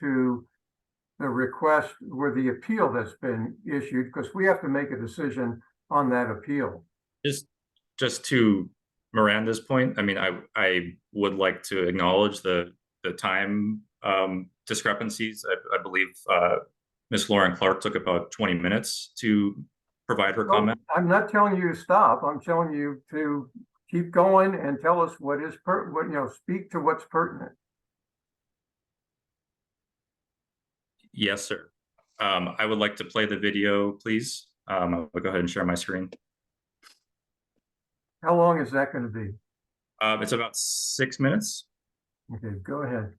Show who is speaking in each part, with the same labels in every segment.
Speaker 1: to the request or the appeal that's been issued, because we have to make a decision on that appeal.
Speaker 2: Just, just to Miranda's point, I mean, I, I would like to acknowledge the, the time um, discrepancies. I, I believe uh, Ms. Lauren Clark took about twenty minutes to provide
Speaker 1: Oh.
Speaker 2: her comment.
Speaker 1: I'm not telling you to stop. I'm telling you to keep going and tell us what is per, what, you know, speak to what's pertinent.
Speaker 2: Yes, sir. Um, I would like to play the video, please. Um, I'll go ahead and share my screen.
Speaker 1: How long is that gonna be?
Speaker 2: Uh, it's about six minutes.
Speaker 1: Okay, go ahead.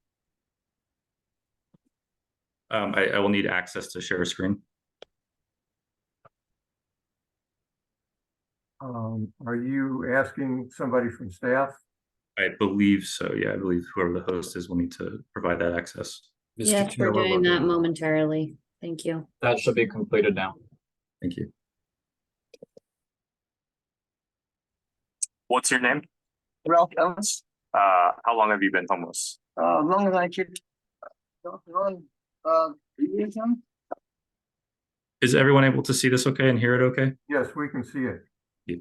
Speaker 2: Um, I, I will need access to share a screen.
Speaker 1: Um, are you asking somebody from staff?
Speaker 2: I believe so. Yeah, I believe whoever the host is will need to provide that access.
Speaker 3: Yes, we're doing that momentarily. Thank you.
Speaker 4: That should be completed now.
Speaker 2: Thank you.
Speaker 5: What's your name?
Speaker 6: Ralph Ellis,
Speaker 5: Uh, how long have you been homeless?
Speaker 6: uh, long as I could. Don't run, uh, you can-
Speaker 2: Is everyone able to see this okay and hear it okay?
Speaker 1: Yes, we can see it.
Speaker 2: Yes.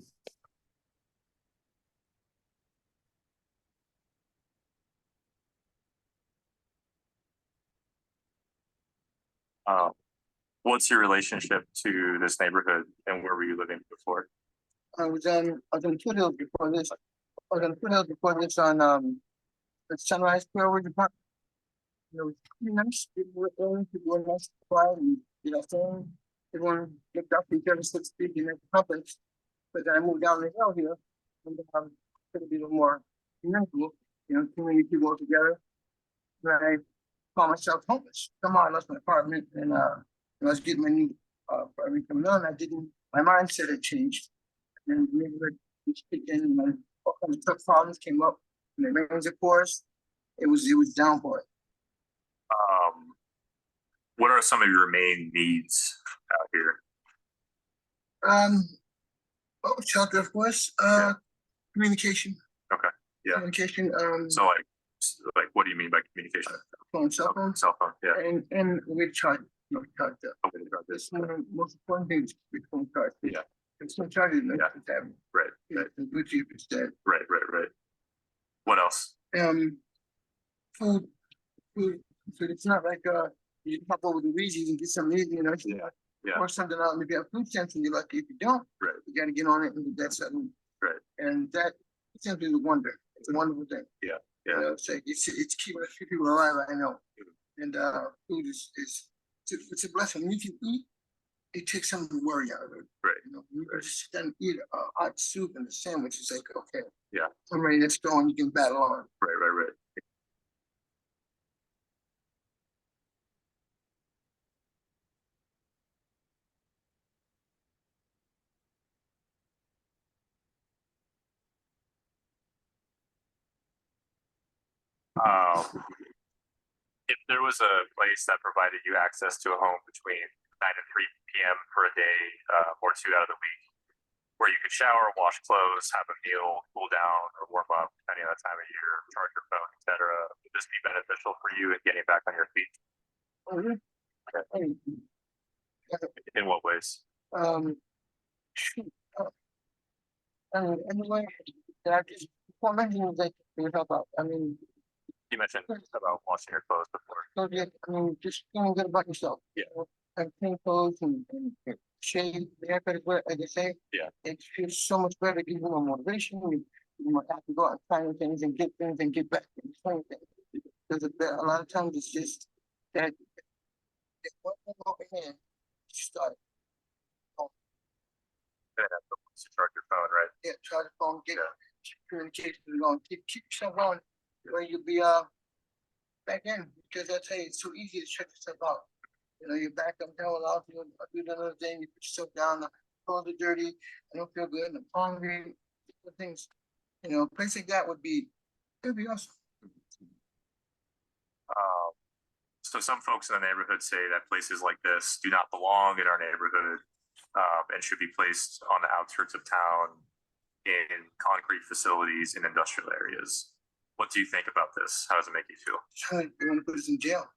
Speaker 5: Uh, what's your relationship to this neighborhood and where were you living before?
Speaker 6: I was on, I was on two hills before this, I was on two hills before this on, um, the Sunrise Railroad Department. It was pretty nice, people were in, people were nice, quiet, and, you know, saying, everyone looked up each other, so to speak, in their public. But then I moved down the hill here, and, um, it's gonna be a little more, communal, you know, too many people together. When I call myself homeless, somehow I lost my apartment, and, uh, when I was getting my new, uh, apartment coming on, I didn't, my mindset had changed and we were just picking and then all kinds of truck problems came up. And the rain was of course, it was, it was downpour.
Speaker 5: Um, what are some of your main needs out here?
Speaker 6: Um, oh, shelter of course, uh, communication.
Speaker 5: Okay, yeah.
Speaker 6: Communication, um,
Speaker 5: So like, s- like, what do you mean by communication?
Speaker 6: phone, cell phones,
Speaker 5: Cell phone, yeah.
Speaker 6: and, and we tried, you know, tried to,
Speaker 5: Okay, about
Speaker 6: this
Speaker 5: this.
Speaker 6: one of the most important things we phone card.
Speaker 5: Yeah.
Speaker 6: It's so charged, it's
Speaker 5: Yeah.
Speaker 6: that,
Speaker 5: Right, right,
Speaker 6: it's the Bluetooth instead.
Speaker 5: right, right, right. What else?
Speaker 6: um, food, food, food. It's not like, uh, you can hop over to Reese's and get some easy, you know?
Speaker 5: Yeah, yeah.
Speaker 6: Or something out, maybe a food stamps and you're lucky if you don't.
Speaker 5: Right.
Speaker 6: You gotta get on it and get that something.
Speaker 5: Right.
Speaker 6: And that, food stamps is a wonder. It's a wonderful thing.
Speaker 5: Yeah,
Speaker 6: You
Speaker 5: yeah.
Speaker 6: know, it's like, it's, it's keeping a few people alive, I know.
Speaker 5: Mm-hmm.
Speaker 6: And, uh, food is, is, it's a- it's a blessing. When You can eat, it takes some of the worry out of it.
Speaker 5: Right,
Speaker 6: You know, you can just sit down and eat a hot soup and a sandwich. It's like, okay.
Speaker 5: Yeah.
Speaker 6: I'm ready, let's go and you can battle on.
Speaker 5: Right, right, right. Um, if there was a place that provided you access to a home between nine and three PM for a day, uh, or two out of the week, where you could shower, wash clothes, have a meal, cool down or warm up, depending on the time of year, charge your phone, et cetera, would this be beneficial for you in getting back on your feet?
Speaker 6: Oh, yeah. I mean,
Speaker 5: In what ways?
Speaker 6: um. shoot, uh, And anyway, I just, well, imagine that you help out, I mean,
Speaker 5: You mentioned about washing your clothes before.
Speaker 6: so yeah, I mean, just feeling good about yourself. you know, And clean clothes and, and shave, the haircut is where, as they say.
Speaker 5: Yeah.
Speaker 6: It feels so much better, give you more motivation, you, you might have to go out and find new things and get things and get back and find things. Cause a bit- a lot of times it's just that. that one thing over here, you Start,
Speaker 5: To charge your phone, right?
Speaker 6: yeah, try to phone, get
Speaker 5: Yeah.
Speaker 6: communication along, keep, keep yourself on, where you'll be, uh, back in, because I tell you, it's so easy to shut yourself out. You know, you're back, I'm down, I'll do, I'll do another thing, you put yourself down, the clothes are dirty, I don't feel good, and I'm hungry, different things. You know, a place like that would be, it'd be awesome.
Speaker 5: Um, so some folks in the neighborhood say that places like this do not belong in our neighborhood, um, and should be placed on the outskirts of town in concrete facilities in industrial areas. What do you think about this? How does it make you feel?
Speaker 6: Trying, they wanna put us in jail.